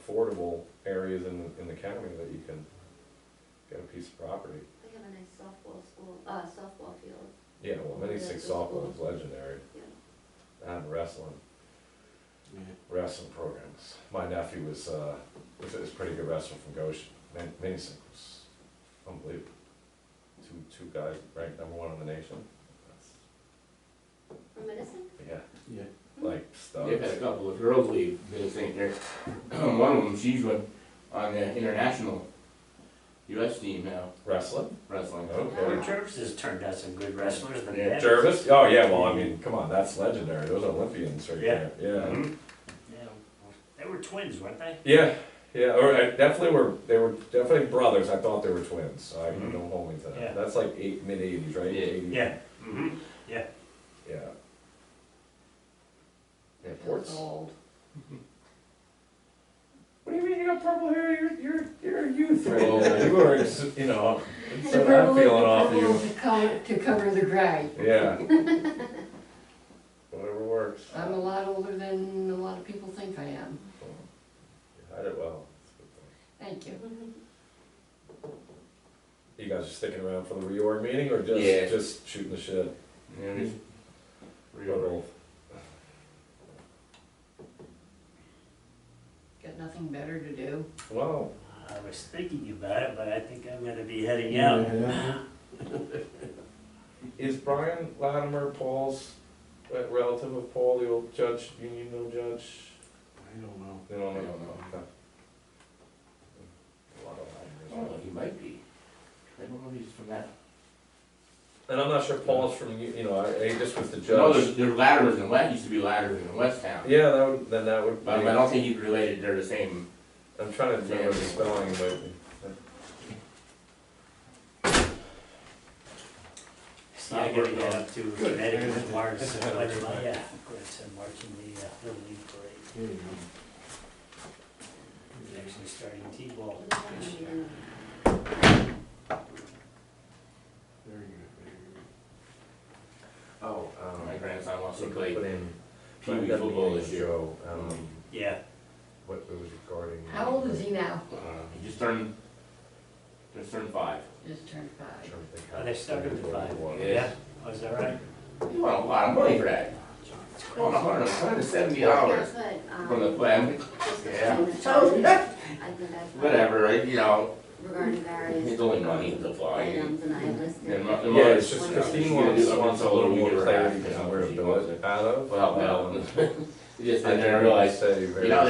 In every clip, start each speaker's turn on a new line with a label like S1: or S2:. S1: affordable areas in, in the county that you can get a piece of property.
S2: They have a nice softball school, uh, softball field,
S1: Yeah, well, many six softball is legendary,
S2: yeah.
S1: and wrestling, wrestling programs. My nephew was, uh, was, is a pretty good wrestler from Goshen, Man- many six, was unbelievable. Two, two guys ranked number one in the nation, That's-
S2: From Medicine?
S1: yeah,
S3: Yeah,
S1: like stuff.
S3: they've had a couple of girls leave Middle St. Clair. One of them, she's with, on the international US team now,
S1: Wrestling,
S3: wrestling.
S1: okay.
S4: Well, Jervis has turned out some good wrestlers, the
S3: Yeah,
S4: net.
S1: Jervis, oh yeah, well, I mean, come on, that's legendary, those Olympians right there, yeah. Mm-hmm.
S3: Mhm.
S4: Hmm? Yeah, well, They were twins, weren't they?
S1: Yeah, yeah, or I definitely were, they were definitely brothers, I thought they were twins, I
S4: Mhm.
S1: don't hold me to
S4: Yeah.
S1: that, that's like eight, mid eighties, right?
S3: Yeah.
S1: 80s.
S4: Yeah. Mm-hmm.
S1: Yeah. Yeah, Port's old. What do you mean you got purple hair, you're, you're, you're a youth right
S3: Oh.
S1: now, you are, ex- you know,
S5: The
S1: so
S5: purple-
S1: I'm feeling
S5: the
S1: off
S5: purple
S1: you,
S5: To cover, to cover the gray.
S1: yeah. Whatever works.
S5: I'm a lot older than a lot of people think I am.
S1: You hide it well, That's a good point.
S5: Thank you.
S1: You guys are sticking around for the reorg meeting or just
S3: Yeah.
S1: just shooting the shit?
S3: Yeah, just
S1: Or
S3: real.
S5: Got nothing better to do.
S1: both? Wow.
S4: I was thinking about it, but I think I'm gonna be heading out.
S1: Is Brian Latimer Paul's uh, relative of Paul, the old judge, union mill judge?
S6: I don't know.
S1: They don't
S3: I
S1: know.
S3: don't know.
S1: Okay. A lot
S3: I
S1: of
S3: don't know,
S1: Latimers.
S3: he might be. I don't know if he's from that.
S1: Oh. And I'm not sure Paul's from you. You know, I, I just was the
S3: No,
S1: judge.
S3: there's, there's Ladders in West, used to be Ladders in West Town.
S1: Yeah, that would, then that would. Be,
S3: But I don't think he's related, they're the same.
S1: I'm trying to remember the
S3: Yeah.
S1: spelling, but
S4: So I gotta get up to Connecticut, Mars, so I might, yeah, of course, I'm marching the, uh, Little League Parade.
S6: There you go.
S4: It's Actually starting T-ball. this year.
S2: Well,
S6: Very good.
S1: oh, um,
S3: My grandson wants to
S1: so
S3: play
S1: put in
S3: Pee Wee football this year.
S1: Joe, um,
S4: Yeah,
S1: what it was regarding.
S5: How old is he now?
S3: Uh, He just turned, just turned five.
S5: Just turned five.
S4: Oh, they stuck him to five. yeah,
S3: Yes.
S4: was that right?
S3: He want a lot of money for that. Well, a hundred, a hundred and seventy dollars
S2: that's what, um,
S3: from the plan.
S2: just the
S3: Yeah.
S2: thing that
S3: So,
S2: I think I found
S3: Whatever, right, you know,
S2: regarding
S3: it's
S2: various
S3: only money to fly.
S2: items and I listed.
S3: And my- and
S1: Yeah,
S3: my-
S1: it's just
S2: When
S1: Christine
S3: she
S1: wants,
S3: did it,
S1: wants a little more
S3: we were
S1: clarity
S3: happy,
S1: on
S3: so
S1: where to
S3: she
S1: do
S3: wants
S1: it
S3: it.
S1: out of.
S3: Well, well,
S1: Um,
S3: just
S1: I
S3: then I
S1: didn't
S3: realized,
S1: say
S3: you know,
S1: very how
S3: there's
S1: I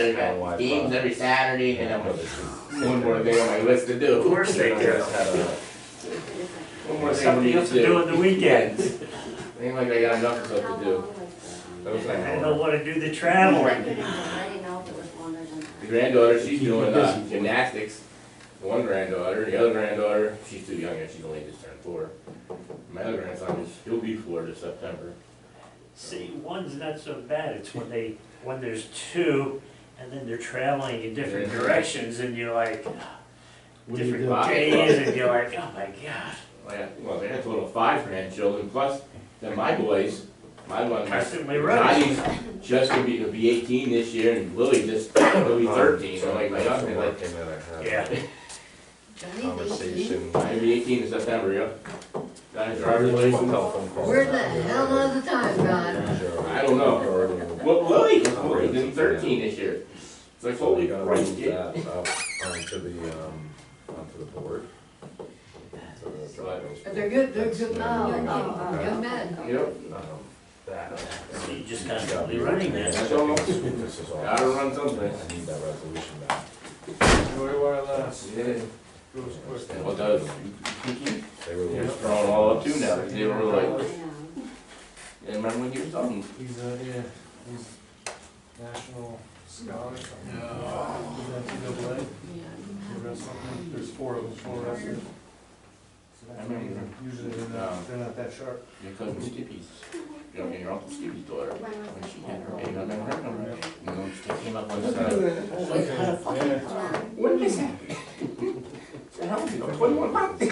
S3: got games
S1: thought.
S3: every Saturday and I'm like, one more thing on my list to
S4: Of
S3: do.
S4: course they
S1: You
S4: do.
S1: guys had a-
S3: One more thing we
S4: Something
S3: need
S4: else
S3: to
S4: to do
S3: do.
S4: on the weekends.
S3: Ain't like I got enough
S2: How
S3: stuff to do.
S2: long was
S1: That was
S2: the,
S1: like
S2: um,
S1: an
S4: I
S1: hour.
S4: don't wanna do the travel.
S2: I couldn't, I didn't know if it was longer than
S3: The
S2: that.
S3: granddaughter, she's doing uh, gymnastics. One granddaughter, the other granddaughter, she's too young yet, she's only just turned four. My other grandson is, he'll be four this September.
S4: See, one's not so bad, it's when they, when there's two, and then they're traveling in different
S3: Yeah.
S4: directions, and you're like, "Ah,
S6: What do you
S4: different
S6: do?
S3: Wow.
S4: days, and you're like, oh my god.
S3: I got- Well, they have total of five grandchildren, plus then my boys, my one,
S4: Constantly running.
S3: Johnny's just gonna be, he'll be eighteen this year, and Lily just, he'll be thirteen, so like, my
S1: That's the one
S3: youngest, like,
S1: thing that I
S4: Yeah.
S1: had
S5: Johnny's eighteen.
S1: conversation.
S3: he'll be eighteen in September, yeah. Got his driver's
S1: One
S3: license.
S1: telephone call.
S5: Where the hell are the time gone?
S3: I don't know. Well, Lily, Lily's in thirteen this year. It's like,
S1: So we
S3: holy
S1: gotta
S3: Christ,
S1: move
S3: kid.
S1: that up onto the, um, onto the board. So the drivers-
S5: They're good, they're good now.
S1: That's-
S2: Oh, oh,
S5: Young men.
S3: Yep.
S1: Um, That.
S4: So you just constantly running
S1: Yeah,
S4: that.
S3: I don't know.
S1: This is all.
S3: Gotta run something.
S1: I need that resolution back.
S3: Yeah.
S6: Goes quick.
S3: What does?
S1: They were.
S3: You're throwing all up too now. They were
S2: I
S3: like,
S2: know.
S3: and remember when you were talking?
S6: He's a, yeah, he's national scholar. NCAA,
S5: Yeah.
S6: for wrestling. There's four of them, four wrestlers.
S3: I remember.
S6: Usually they're not, they're not that sharp.
S3: Your cousin Skippy's, your, your uncle Skippy's daughter. When she had her baby, I remember her number. You know, she came up one time.
S6: Yeah.
S3: When did this happen? I said, how old are you? I'm twenty-one.